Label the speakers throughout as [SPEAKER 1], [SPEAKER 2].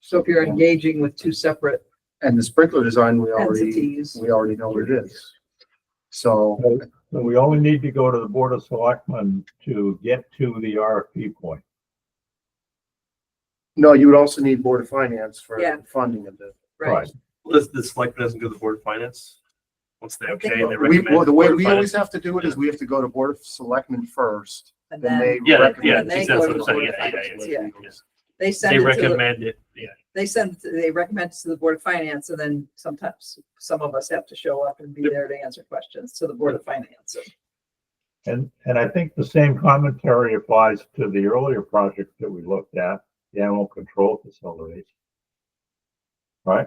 [SPEAKER 1] So if you're engaging with two separate
[SPEAKER 2] And the sprinkler design, we already,
[SPEAKER 1] entities,
[SPEAKER 2] we already know what it is. So,
[SPEAKER 3] So we only need to go to the Board of Selectmen to get to the RFP point.
[SPEAKER 2] no, you would also need Board of Finance for
[SPEAKER 1] Yeah.
[SPEAKER 2] funding of this.
[SPEAKER 1] right?
[SPEAKER 4] This, the selectmen doesn't go to the board of finance? Once they okay, and they
[SPEAKER 2] We,
[SPEAKER 4] recommend.
[SPEAKER 2] well, the way
[SPEAKER 4] Board of
[SPEAKER 2] we
[SPEAKER 4] Finance-
[SPEAKER 2] always have to do it is we have to go to Board of Selectmen first,
[SPEAKER 1] And
[SPEAKER 2] then they
[SPEAKER 1] then
[SPEAKER 4] Yeah,
[SPEAKER 2] recommend.
[SPEAKER 4] yeah,
[SPEAKER 1] And they
[SPEAKER 4] exactly
[SPEAKER 1] go
[SPEAKER 4] what
[SPEAKER 1] to
[SPEAKER 4] I'm
[SPEAKER 1] the
[SPEAKER 4] saying,
[SPEAKER 1] Board of
[SPEAKER 4] yeah, yeah,
[SPEAKER 1] Finance,
[SPEAKER 4] yeah,
[SPEAKER 2] yeah.
[SPEAKER 4] yeah.
[SPEAKER 1] they
[SPEAKER 4] They
[SPEAKER 1] send it to the,
[SPEAKER 4] recommend it, yeah.
[SPEAKER 1] they send, it to- they recommend it to the Board of Finance and then sometimes some of us have to show up and be there to answer questions to the Board of Finance.
[SPEAKER 3] And, and I think the same commentary applies to the earlier project that we looked at, the animal control facilities. Right?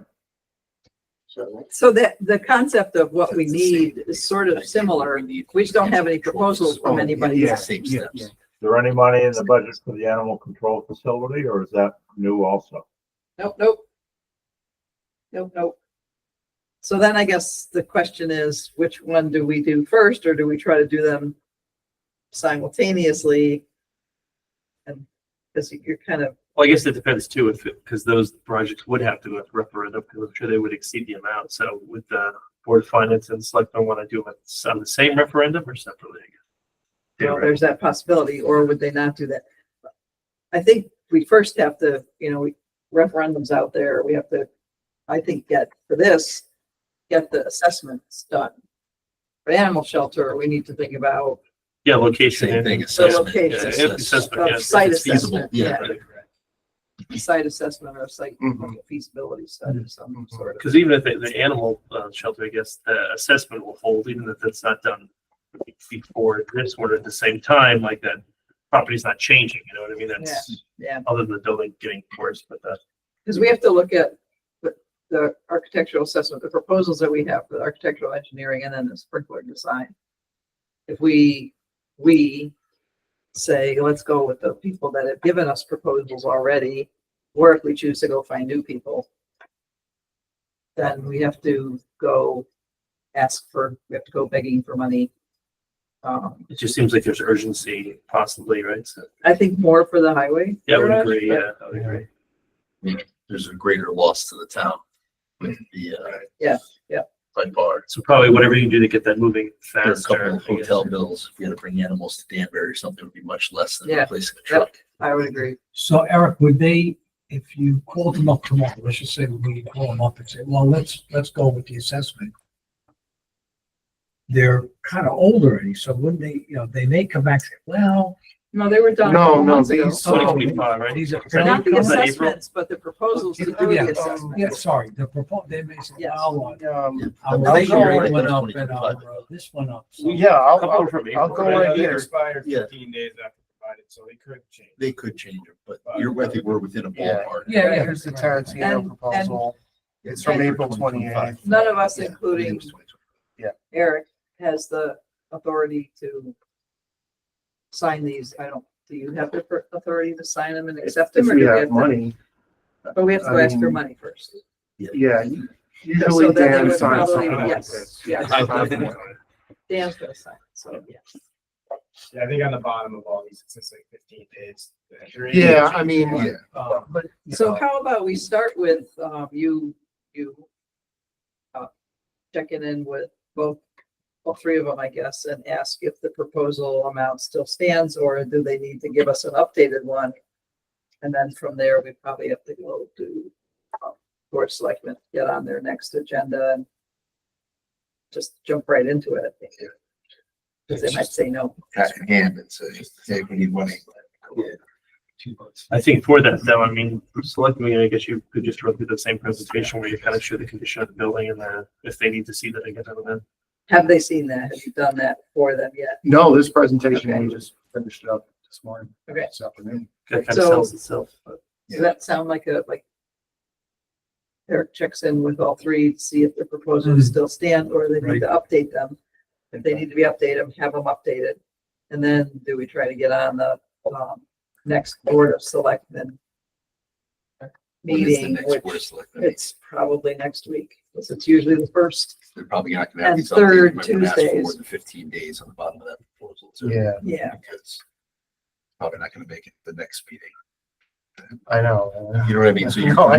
[SPEAKER 2] So,
[SPEAKER 1] So that, the concept of what we need is sort of similar. We just don't have any proposals
[SPEAKER 2] Oh,
[SPEAKER 1] from anybody
[SPEAKER 2] yeah,
[SPEAKER 1] yet.
[SPEAKER 2] yeah, yeah.
[SPEAKER 3] Is there any money in the budget for the animal control facility or is that new also?
[SPEAKER 1] Nope, nope. Nope, nope. So then I guess the question is, which one do we do first, or do we try to do them simultaneously? And, because you're kind of,
[SPEAKER 4] Well, I guess it depends too, if, because those projects would have to go to referendum, because I'm sure they would exceed the amount. So would the board of finance and selectmen want to do it on the same referendum or separately? I guess? Yeah,
[SPEAKER 1] well,
[SPEAKER 4] right.
[SPEAKER 1] there's that possibility, or would they not do that? I think we first have to, you know, we referendums out there, we have to, I think, get, for this, get the assessments done. For animal shelter, we need to think about
[SPEAKER 4] Yeah, location.
[SPEAKER 5] Same
[SPEAKER 4] and-
[SPEAKER 5] thing,
[SPEAKER 4] yeah,
[SPEAKER 5] assessment.
[SPEAKER 1] location.
[SPEAKER 4] yeah,
[SPEAKER 5] Assess-
[SPEAKER 4] assessment,
[SPEAKER 1] Of
[SPEAKER 4] yeah, if
[SPEAKER 1] site
[SPEAKER 4] it's feasible.
[SPEAKER 1] assessment,
[SPEAKER 5] yeah.
[SPEAKER 4] Right, correct.
[SPEAKER 1] a site assessment or a site
[SPEAKER 2] Mhm.
[SPEAKER 1] feasibility study of some sort.
[SPEAKER 4] Because even if the, the animal uh, shelter, I guess, the assessment will hold, even if that's not done before this one at the same time, like that property's not changing, you know what I mean? That's,
[SPEAKER 1] Yeah,
[SPEAKER 4] other than the building getting worse, but the,
[SPEAKER 1] because we have to look at the- the architectural assessment, the proposals that we have for the architectural engineering and then the sprinkler design. If we, we say, let's go with the people that have given us proposals already, or if we choose to go find new people, then we have to go ask for, we have to go begging for money. Um,
[SPEAKER 4] it just seems like there's urgency possibly, right? So,
[SPEAKER 1] I think more for the highway.
[SPEAKER 4] yeah, I would
[SPEAKER 1] garage,
[SPEAKER 4] agree,
[SPEAKER 1] but-
[SPEAKER 4] yeah, I would agree.
[SPEAKER 5] There's a greater loss to the town with the, uh.
[SPEAKER 1] Mm-hmm. Yeah, yeah.
[SPEAKER 5] By bar,
[SPEAKER 4] So probably whatever you can do to get that moving
[SPEAKER 5] There are a couple
[SPEAKER 4] faster.
[SPEAKER 5] of
[SPEAKER 4] I guess.
[SPEAKER 5] hotel bills, if you had to bring animals to Danbury or something, it would be much less than
[SPEAKER 1] Yeah.
[SPEAKER 5] replacing a truck.
[SPEAKER 1] I would agree.
[SPEAKER 6] So Eric, would they, if you called them up tomorrow, let's just say we call them up and say, well, let's, let's go with the assessment. They're kind of old already, so wouldn't they, you know, they may come back, and say, well,
[SPEAKER 1] No, they were done. a
[SPEAKER 2] No,
[SPEAKER 1] couple
[SPEAKER 2] no,
[SPEAKER 1] months ago.
[SPEAKER 2] these-
[SPEAKER 7] Oh,
[SPEAKER 4] Twenty twenty-five, right?
[SPEAKER 6] these are.
[SPEAKER 4] So
[SPEAKER 1] Not the
[SPEAKER 4] April?
[SPEAKER 1] assessments, but the proposals to do the
[SPEAKER 6] Yeah,
[SPEAKER 1] assessment.
[SPEAKER 6] yeah, sorry, the proposal, they may say,
[SPEAKER 1] Yes.
[SPEAKER 6] well,
[SPEAKER 2] Um,
[SPEAKER 6] our
[SPEAKER 5] Yeah.
[SPEAKER 6] rate
[SPEAKER 2] Yeah.
[SPEAKER 6] went up and
[SPEAKER 5] Yeah.
[SPEAKER 6] our, uh, this went up. so-
[SPEAKER 2] yeah, I'll,
[SPEAKER 4] Couple
[SPEAKER 2] I'll,
[SPEAKER 4] from
[SPEAKER 2] I'll
[SPEAKER 4] April,
[SPEAKER 2] go
[SPEAKER 4] right?
[SPEAKER 2] right
[SPEAKER 7] They
[SPEAKER 2] here.
[SPEAKER 7] expired
[SPEAKER 5] Yeah.
[SPEAKER 7] fifteen days after provided, so they could change.
[SPEAKER 5] They could change it, but you're, I think we're within a
[SPEAKER 2] Yeah.
[SPEAKER 5] ballpark.
[SPEAKER 6] Yeah, yeah.
[SPEAKER 2] Here's the
[SPEAKER 1] And-
[SPEAKER 2] Tarantino
[SPEAKER 1] and-
[SPEAKER 2] proposal. It's from
[SPEAKER 1] and-
[SPEAKER 2] April twenty-eighth.
[SPEAKER 1] None of us,
[SPEAKER 5] Yeah, I
[SPEAKER 1] including
[SPEAKER 5] think it was 22.
[SPEAKER 1] Eric, has the authority to sign these. I don't, do you have the per- authority to sign them and accept
[SPEAKER 2] If
[SPEAKER 1] them? or
[SPEAKER 2] we
[SPEAKER 1] do
[SPEAKER 2] have
[SPEAKER 1] to-
[SPEAKER 2] money.
[SPEAKER 1] But we have to ask for
[SPEAKER 2] Um,
[SPEAKER 1] money first.
[SPEAKER 2] Yeah,
[SPEAKER 1] So
[SPEAKER 2] usually
[SPEAKER 1] then they
[SPEAKER 2] Dan
[SPEAKER 1] would
[SPEAKER 2] signs
[SPEAKER 1] probably-
[SPEAKER 2] something like
[SPEAKER 1] yes,
[SPEAKER 2] this.
[SPEAKER 1] yes.
[SPEAKER 2] Signs something like
[SPEAKER 1] Dan's gonna sign, so yes.
[SPEAKER 7] Yeah, I think on the bottom of all these, it says like fifteen days.
[SPEAKER 2] that. Yeah, I mean,
[SPEAKER 5] Yeah.
[SPEAKER 6] Uh,
[SPEAKER 2] but
[SPEAKER 1] So how about we start with, um, you, you uh, checking in with both, all three of them, I guess, and ask if the proposal amount still stands or do they need to give us an updated one? And then from there, we probably have to go to um, Board of Selectmen, get on their next agenda and just jump right into it. I think. Cause they might say no.
[SPEAKER 5] Pat in hand and say, hey, we need money.
[SPEAKER 4] I think for that though, I mean, select me, I guess you could just run through the same presentation where you kind of show the condition of the building and the, if they need to see that again, then.
[SPEAKER 1] Have they seen that? Have you done that for them yet?
[SPEAKER 2] No, this presentation, we
[SPEAKER 1] Okay.
[SPEAKER 2] just finished it up this morning.
[SPEAKER 1] Okay.
[SPEAKER 2] This afternoon.
[SPEAKER 4] That kind
[SPEAKER 1] So-
[SPEAKER 4] of sells itself. but-
[SPEAKER 1] Does that sound like a, like? Eric checks in with all three to see if the proposals still stand or they need to update them. If they need to be updated, have them updated. And then do we try to get on the, um, next board of selectmen?
[SPEAKER 5] When is the
[SPEAKER 1] Meeting,
[SPEAKER 5] next Board of
[SPEAKER 1] which
[SPEAKER 5] Selectmen meeting?
[SPEAKER 1] it's probably next week, because it's usually the first,
[SPEAKER 5] They're probably not gonna have
[SPEAKER 1] And
[SPEAKER 5] these updated.
[SPEAKER 1] third
[SPEAKER 5] Remember, we asked for
[SPEAKER 1] Tuesdays.
[SPEAKER 5] More than fifteen days on the bottom of that proposal. too,
[SPEAKER 2] Yeah,
[SPEAKER 1] yeah.
[SPEAKER 5] Because probably not gonna make it the next meeting.
[SPEAKER 2] I know.
[SPEAKER 5] You know what I mean? So you're
[SPEAKER 2] No,